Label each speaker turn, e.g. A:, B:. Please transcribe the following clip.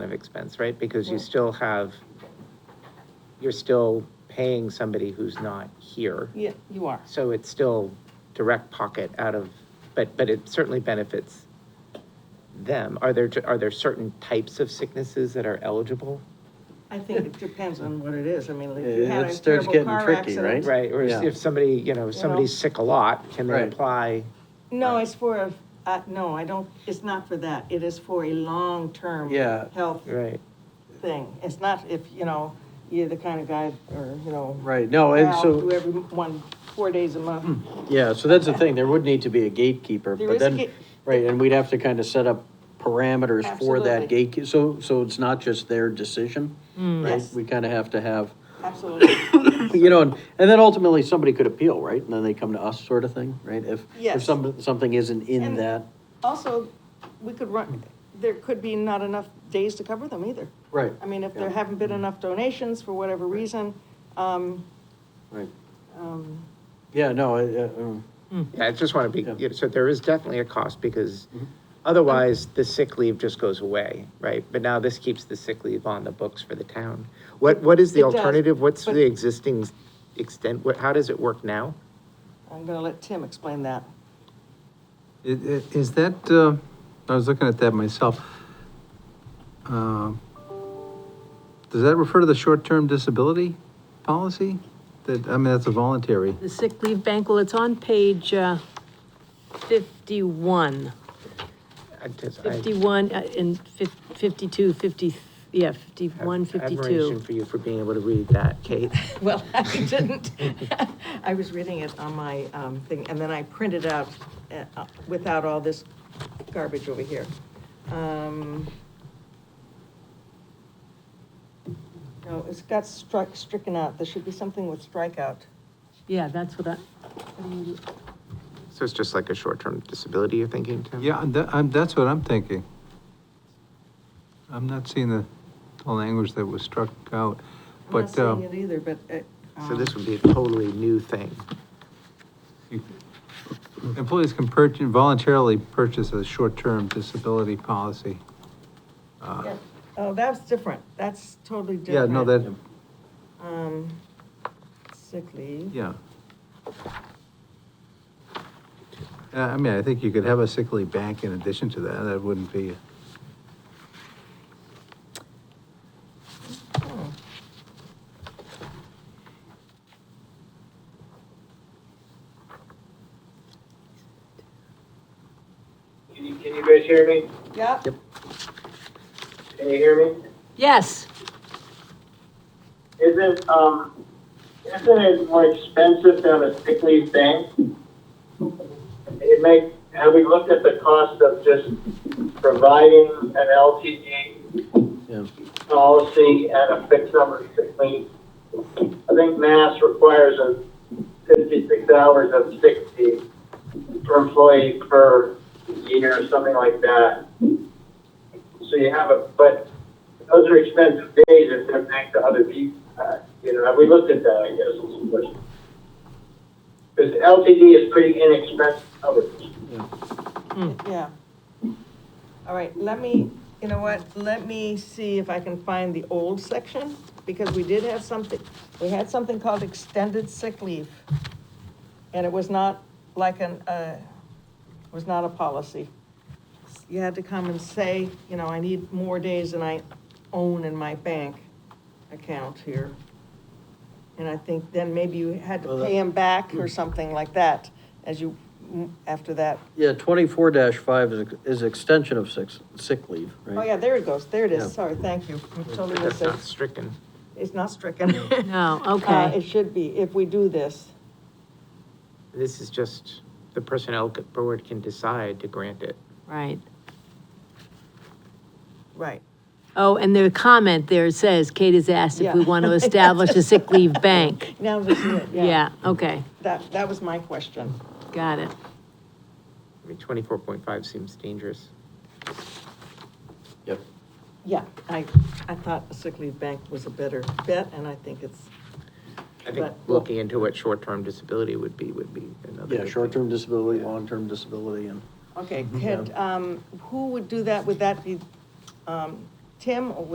A: of expense, right? Because you
B: Right.
A: still have, you're still paying somebody who's not here.
B: Yeah, you are.
A: So it's still direct pocket out of, but, but it certainly benefits them. Are there, are there certain types of sicknesses that are eligible?
B: I think it depends on what it is. I mean, if you
C: It-
B: had
C: it
B: a
C: starts
B: terrible
C: getting
B: car
C: tricky,
B: accident.
A: Right, or
C: Yeah.
A: if somebody, you know, if somebody's sick a lot, can they
C: Right.
A: apply?
B: No, it's for a, uh, no, I don't, it's not for that. It is for a long-term
C: Yeah.
B: health
A: Right,
B: thing. It's not if, you know, you're the kind of guy, or, you know,
C: Right, no, and
B: I'll do
C: so, Hmm.
B: every one, four days a month.
C: yeah, so that's the thing, there would need to be a gatekeeper,
B: There
C: but
B: is a
C: then,
B: gate-
C: right, and we'd have to kind of set up parameters for that
B: Absolutely. Mm.
C: gate, so, so it's not just their decision, right?
B: Yes.
C: We kind of have to have,
B: Absolutely.
C: you know, and, and then ultimately, somebody could appeal, right? And then they come to us, sort of thing, right? If, if
B: Yes.
C: some, something isn't in
B: And-
C: that,
B: Also, we could run, there could be not enough days to cover them either.
C: right,
B: I mean, if there
C: Yeah.
B: haven't been enough donations for whatever reason, um,
C: right,
B: um,
C: yeah, no, I- I, um,
A: yeah, I just want to
C: Yeah.
A: be, yeah, so there is definitely a cost, because otherwise, the sick leave just goes away, right? But now this keeps the sick leave on the books for the town. What, what is
B: It
A: the
B: does,
A: alternative? What's
B: but-
A: the existing extent, what, how does it work now?
B: I'm gonna let Tim explain that.
D: I- i- Is that, uh, I was looking at that myself. Um, Does that refer to the short-term disability policy? That, I mean, that's a voluntary.
E: The sick leave bank, well, it's on page uh, 51,
A: I just- I
E: 51 uh, and fif- 52, 50, yeah, 51,
A: have Admiration
E: 52.
A: for you for being able to read that, Kate.
B: Well, I didn't. I was reading it on my um, thing, and then I printed out uh, uh, without all this garbage over here. Um, No, it's got struck, stricken out. There should be something with strikeout.
E: Yeah, that's what I,
A: So it's just like a short-term disability you're thinking, Tim?
D: Yeah, and that- I'm- that's what I'm thinking. I'm not seeing the the language that was struck out,
B: I'm not
D: but uh,
B: seeing it either, but. uh,
A: So
B: um,
A: this would be a totally new thing.
D: employees can purchase, voluntarily purchase a short-term disability policy. Uh,
B: yeah. Oh, that's different. That's totally
D: Yeah,
B: different.
D: no, that,
B: Um, Sick leave.
D: Yeah. Uh, I mean, I think you could have a sick leave bank in addition to that, that wouldn't be,
B: Hmm.
F: Can you, can you guys hear me?
B: Yeah,
F: Can you hear me?
E: yes,
F: Isn't, um, isn't it more expensive than a sick leave bank? It make, have we looked at the cost of just providing an LTD
C: yeah.
F: policy and a fixed number of sick leave? I think mass requires a fifty-six hours of sick leave per employee per year, or something like that. So you have a, but those are expensive days if they're back to other people. Uh, You know, have we looked at that, I guess, is the question. Because LTD is pretty inexpensive coverage.
B: yeah. All right, let me, you know what, let me see if I can find the old section, because we did have something, we had something called extended sick leave. And it was not like an, uh, was not a policy. You had to come and say, you know, I need more days than I own in my bank account here. And I think then maybe you had
C: Well,
B: to
C: that- Hmm.
B: pay him back or something like that, as you, mm, after that.
C: Yeah, twenty-four five is, is extension of six, sick leave, right?
B: Oh, yeah, there it goes, there it
C: Yeah.
B: is, sorry, thank you. I Totally
A: But that's
B: missed it.
A: not stricken.
B: It's not stricken.
E: no,
B: Uh,
E: okay.
B: It should be, if we do this.
A: This is just, the personnel c- board can decide to grant it.
E: Right.
B: Right.
E: Oh, and the comment there says, Kate has asked if we
B: Yeah.
E: want to establish a sick leave bank.
B: Now, this is it, yeah.
E: Yeah, okay,
B: That, that was my question.
E: got it.
A: I mean, twenty-four point five seems dangerous.
C: Yep.
B: Yeah, I, I thought a sick leave bank was a better bet, and I think it's,
A: I think
B: But-
A: looking into what short-term disability would be, would be another.
C: Yeah,
A: good
C: short-term disability, long-term disability, and
B: okay, could, um, who would do that? Would that be, um, Tim, or